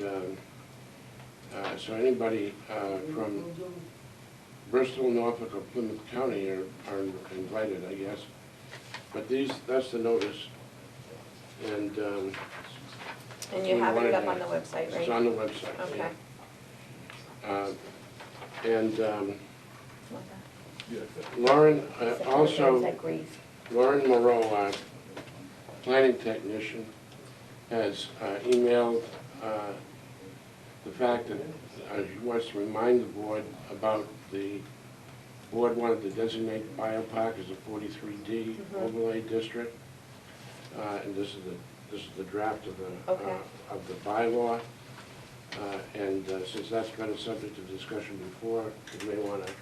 Yeah, um, so anybody uh, from Bristol, Norfolk, or Plymouth County are are invited, I guess. But these, that's the notice. And um, And you We have it wanted up to- on the website, it's right? on the website. yeah. Okay. Uh, And um, Yeah. Lauren uh, Except for the also... ones that grieve. Lauren Moreau, our planning technician, has uh, emailed uh, the fact that uh, she wants to remind the board about the, board wanted to designate Biopark as a 43D Mhm. overlay district. Uh, And this is the, this is the draft of the, uh, Okay. of the bylaw. Uh, And uh, since that's been a subject of discussion before, you may want to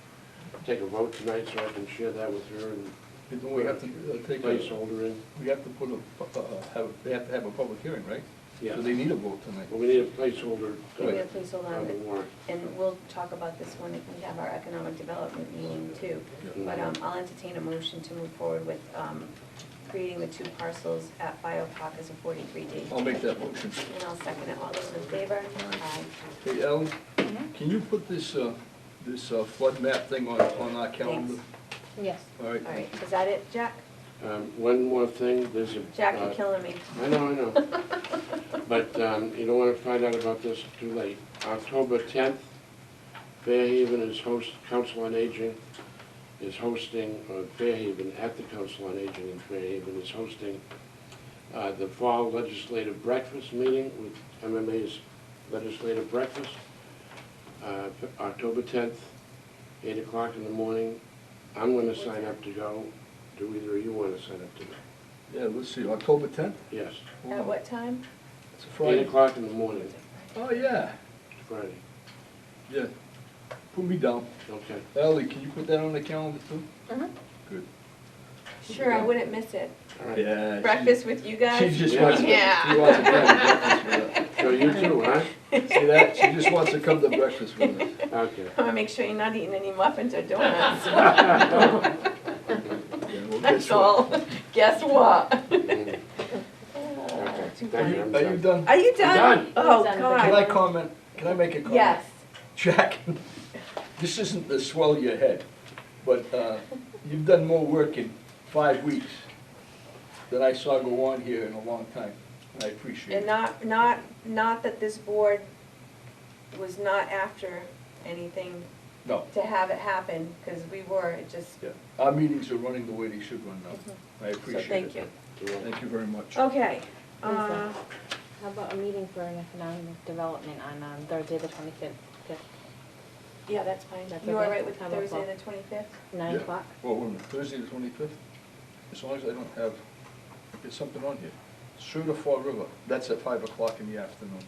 take a vote tonight so I can share that with her and And don't we have to uh, take a, placeholder in. we have to put a, pu- uh, have, they have to have a public hearing, right? Yeah. So they need a vote tonight. Well, we need a placeholder Can you uh, please hold on, on the warrant. and we'll talk about this when we have our economic development meeting too. Yeah. But um, I'll entertain a motion to move forward with um, creating the two parcels at Biopark as a 43D. I'll make that motion. And I'll second it, all those in favor? Aye. Hey, Alan, Mm-hmm. can you put this, uh, this uh, flood map thing on, on our calendar? Yes. All All right, right. is that it, Jack? Um, One more thing, there's a... Jack, uh, you're killing me. I know, I know. But um, you don't want to find out about this too late. October 10th, Fairhaven is host, Council on Aging is hosting, or Fairhaven at the Council on Aging in Fairhaven is hosting uh, the Fall Legislative Breakfast Meeting with MMA's Legislative Breakfast, uh, F- October 10th, 8 o'clock in the morning. I'm going to sign up to go. Do either of you want to sign up to go? Yeah, let's see, October tenth? Yes. At what time? It's a Eight Friday. o'clock in the morning, Oh, yeah, Friday, yeah. Put me down. okay. Ally, can you put that on the calendar too? Uh-huh. Good. Sure, I wouldn't miss it. All right. Yeah. she- Breakfast with you She guys? just wants, to- Yeah. she wants to come to breakfast with So you too, huh? us. See that? She just wants to come to breakfast with us. Okay. I want to make sure you're not eating any muffins or donuts. Yeah, well, guess That's what? all. Guess what? Mm, okay. Are Thank you, you, I'm are you done. done? Are you done? Done. Oh, Done. Can I God. comment? Can I make a comment? Yes. Jack, this isn't the swell of your head, but uh, you've done more work in five weeks than I saw go on here in a long time, and I appreciate And it. not, not, not that this board was not after anything No, to have it happen, because we were, it just, yeah, our meetings are running the way they should run now. Mhm. I so appreciate it. thank you. Oh. You're welcome. Thank you very much. Okay. Lisa. uh, How about a meeting for an economic development on um, Thursday, the twenty-fifth, Yeah, that's fine. That's You all okay. right with How about Thursday, that? the twenty-fifth? nine Yeah. o'clock? Well, wait a minute, Thursday the twenty-fifth, as long as I don't have, there's something on here. Sioux to Fall River, that's at five o'clock in the afternoon.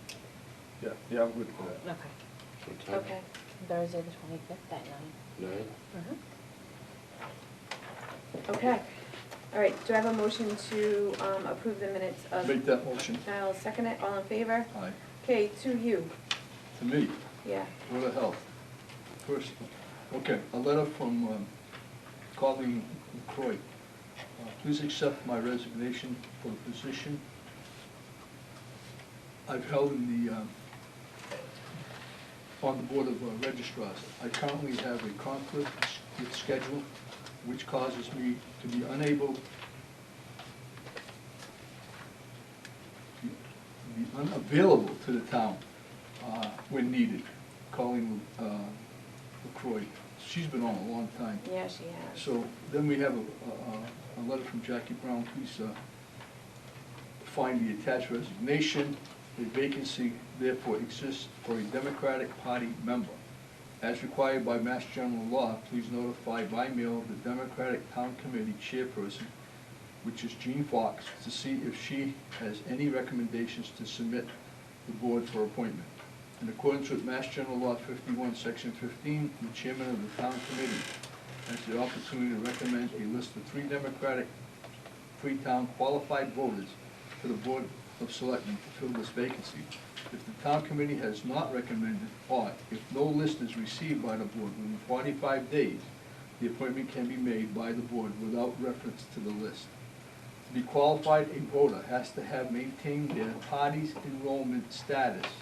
Yeah, yeah, I'm good for that. Okay, What time? Okay. Thursday, the twenty-fifth at nine. Nine? Uh-huh. Okay. All right, do I have a motion to um, approve the minutes of? Make that motion. I'll second it, all in favor? Aye. Okay, to you, To me, yeah. Board of Health. First, okay, a letter from um, Colleen Croy. Uh, Please accept my resignation for the position I've held in the, um, on the Board of uh, Registrars. I currently have a conflict with schedule, which causes me to be unable be unavailable to the town uh, when needed, calling uh, LaCroy. She's been on a long time. Yeah, she has. So then we have a, a- a, a letter from Jackie Brown, please uh, find the attached resignation. A vacancy therefore exists for a Democratic Party member. As required by Mass General Law, please notify by mail the Democratic Town Committee chairperson, which is Jean Fox, to see if she has any recommendations to submit the board for appointment. In accordance with Mass General Law fifty-one, section fifteen, the chairman of the town committee has the opportunity to recommend a list of three Democratic Freetown qualified voters for the Board of Selectmen to fill this vacancy. If the town committee has not recommended, or if no list is received by the board within forty-five days, the appointment can be made by the board without reference to the list. To be qualified, a voter has to have maintained their party's enrollment status